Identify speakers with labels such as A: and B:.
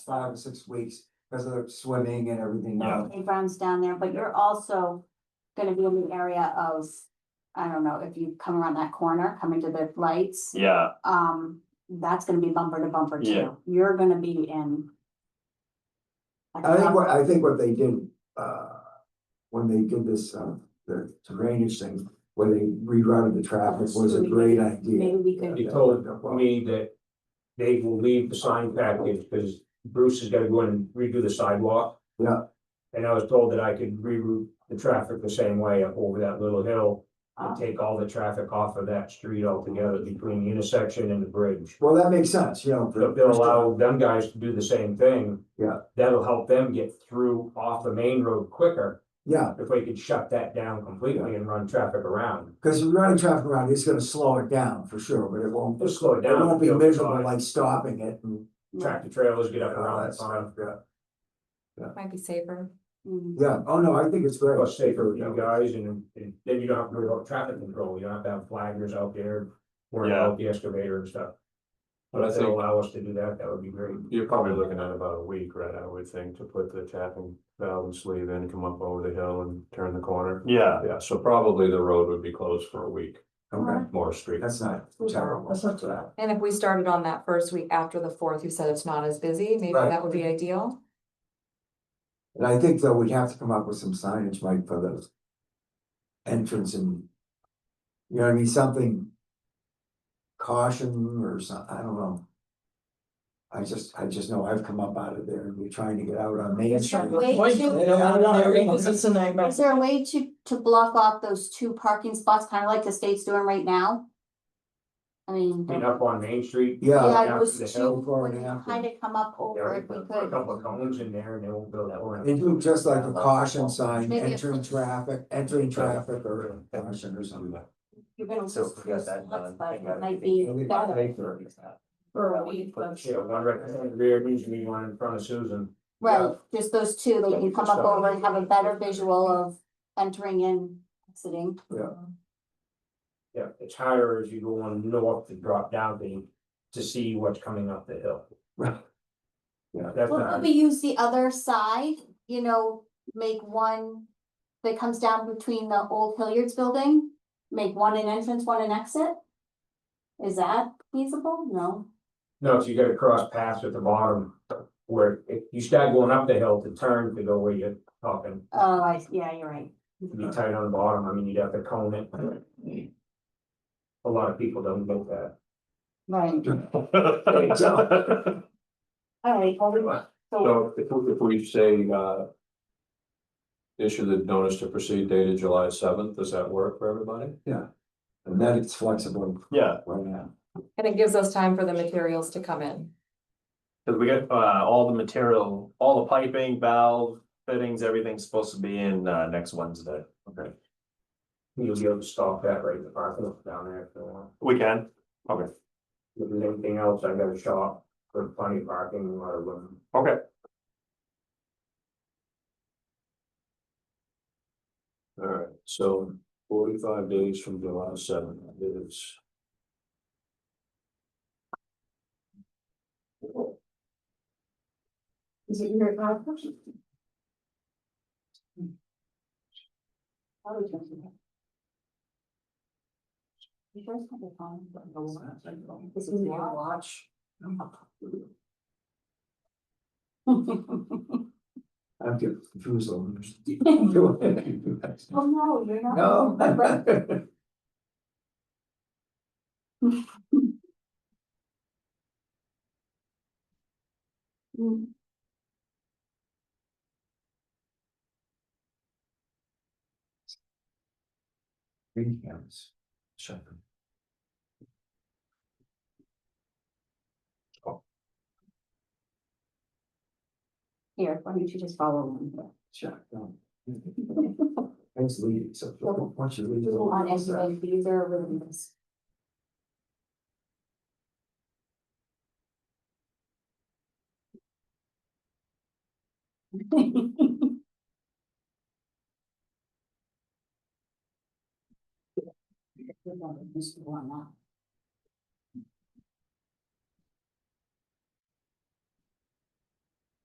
A: five or six weeks because of the swimming and everything
B: Yeah.
A: now.
C: playgrounds down there, but you're also gonna be in the area of, I don't know, if you come around that corner, coming to the lights,
B: Yeah,
C: um, that's gonna be bumper to bumper
B: Yeah.
C: too. You're gonna be in. like a
A: I think
C: bumper-
A: what, I think what they did, uh, when they did this, uh, the drainage thing, when they rerouted the traffic was a great
C: Maybe
A: idea.
C: we could,
D: He told me that Dave will leave the sign package because Bruce is gonna go in and redo the sidewalk.
A: Yeah.
D: And I was told that I could reroute the traffic the same way up over that little hill
A: Ah.
D: and take all the traffic off of that street altogether between the intersection and the bridge.
A: Well, that makes sense, you know.
D: If they'll allow them guys to do the same thing.
A: Yeah.
D: That'll help them get through off the main road quicker
A: Yeah,
D: if we could shut that down completely and run traffic around.
A: because you're running traffic around, it's gonna slow it down for sure, but it won't,
D: It'll slow it
A: it
D: down.
A: won't be miserable like stopping it and
C: yeah,
D: Tractor trailers get up
A: all
D: around
A: that
D: the pond.
A: stuff, yeah.
C: uh,
E: Might be safer.
C: mm,
A: Yeah, oh no, I think it's great.
D: Well, it's safer with you guys and, and then you don't have to worry about traffic control, you don't have to have flaggers out there. Worrying
B: Yeah.
D: about the excavator and stuff.
F: But
D: But
F: I
D: if they
F: think-
D: allow us to do that, that would be great.
F: You're probably looking at about a week, right, I would think, to put the tapping valve and sleeve in, come up over the hill and turn the corner.
B: yeah,
F: Yeah, so probably the road would be closed for a week,
A: Okay,
F: more street.
A: that's not terrible. That's not bad.
E: And if we started on that first week after the fourth, you said it's not as busy, maybe
A: Right.
E: that would be ideal.
A: And I think though we'd have to come up with some signage, Mike, for those. Entrance and. You know, what I mean, something. Caution or some, I don't know. I just, I just know I've come up out of there and we're trying to get out on Main
G: It's not
A: Street.
G: way
A: Wait,
G: too-
A: I don't know, I don't know.
G: It's a nightmare.
C: Is there a way to, to block off those two parking spots, kind of like the state's doing right now? I mean.
D: And up on Main Street.
A: Yeah,
C: Yeah,
D: after
C: those
D: the
C: two,
D: hill
A: before
C: would
A: and after.
C: kind of come up
D: yeah,
C: over
D: we
C: if we
D: put A
C: could.
D: couple of cones in there and they won't go that way.
A: They do just like a caution sign,
C: Maybe a-
A: entering traffic, entering traffic or caution or something.
C: You're gonna
H: So
C: lose
H: if we got
C: those
H: that
C: spots,
H: done.
C: but
H: I got
C: it
H: it.
C: might be better,
G: For a week, but-
D: Yeah, one right in the rear, needs to be one in front of Susan.
C: right, just those two, they
F: Yeah,
C: can
F: we
C: come
F: just
C: up
F: have-
C: over and have a better visual of entering and exiting.
D: Yeah, it's higher as you go on north to drop down the, to see what's coming up the hill.
A: Right. Yeah.
D: That's
C: Well,
D: not,
C: we use the other side, you know, make one that comes down between the old Hilliard's building, make one an entrance, one an exit? Is that feasible? No,
D: no, so you gotta cross paths at the bottom where if you start going up the hill to turn to go where you're talking.
C: oh, I, yeah, you're right.
D: be tight on the bottom, I mean, you'd have to cone it. A lot of people don't get that.
C: Right,
F: So
C: all right, well, we- so,
F: if, we- if we say, uh. Issue the notice to proceed dated July seventh, does that work for everybody?
A: And that it's flexible
B: yeah,
A: right now.
E: And it gives us time for the materials to come in.
B: cause we got, uh, all the material, all the piping, valve, fittings, everything's supposed to be in, uh, next Wednesday. Okay.
D: You'll be able to stop that right in the parking lot down there if you want.
B: We can, okay,
D: If there's anything else, I got a shop with plenty of parking, a lot of room.
B: okay,
F: All right, so forty-five days from July seventh is.
G: Is it your conference?
C: you guys have a phone, but no one-
G: This is your watch.
A: I'm confused on.
C: Oh, no, you're not.
A: No.
C: Mm.
A: Green cameras. Shut them.
C: Here, why don't you just follow along here?
A: Shut them. um, Thanks, Lee. So, once you leave.
C: People on
A: it's, uh,
C: anyway, these are really nice. Mr. One now.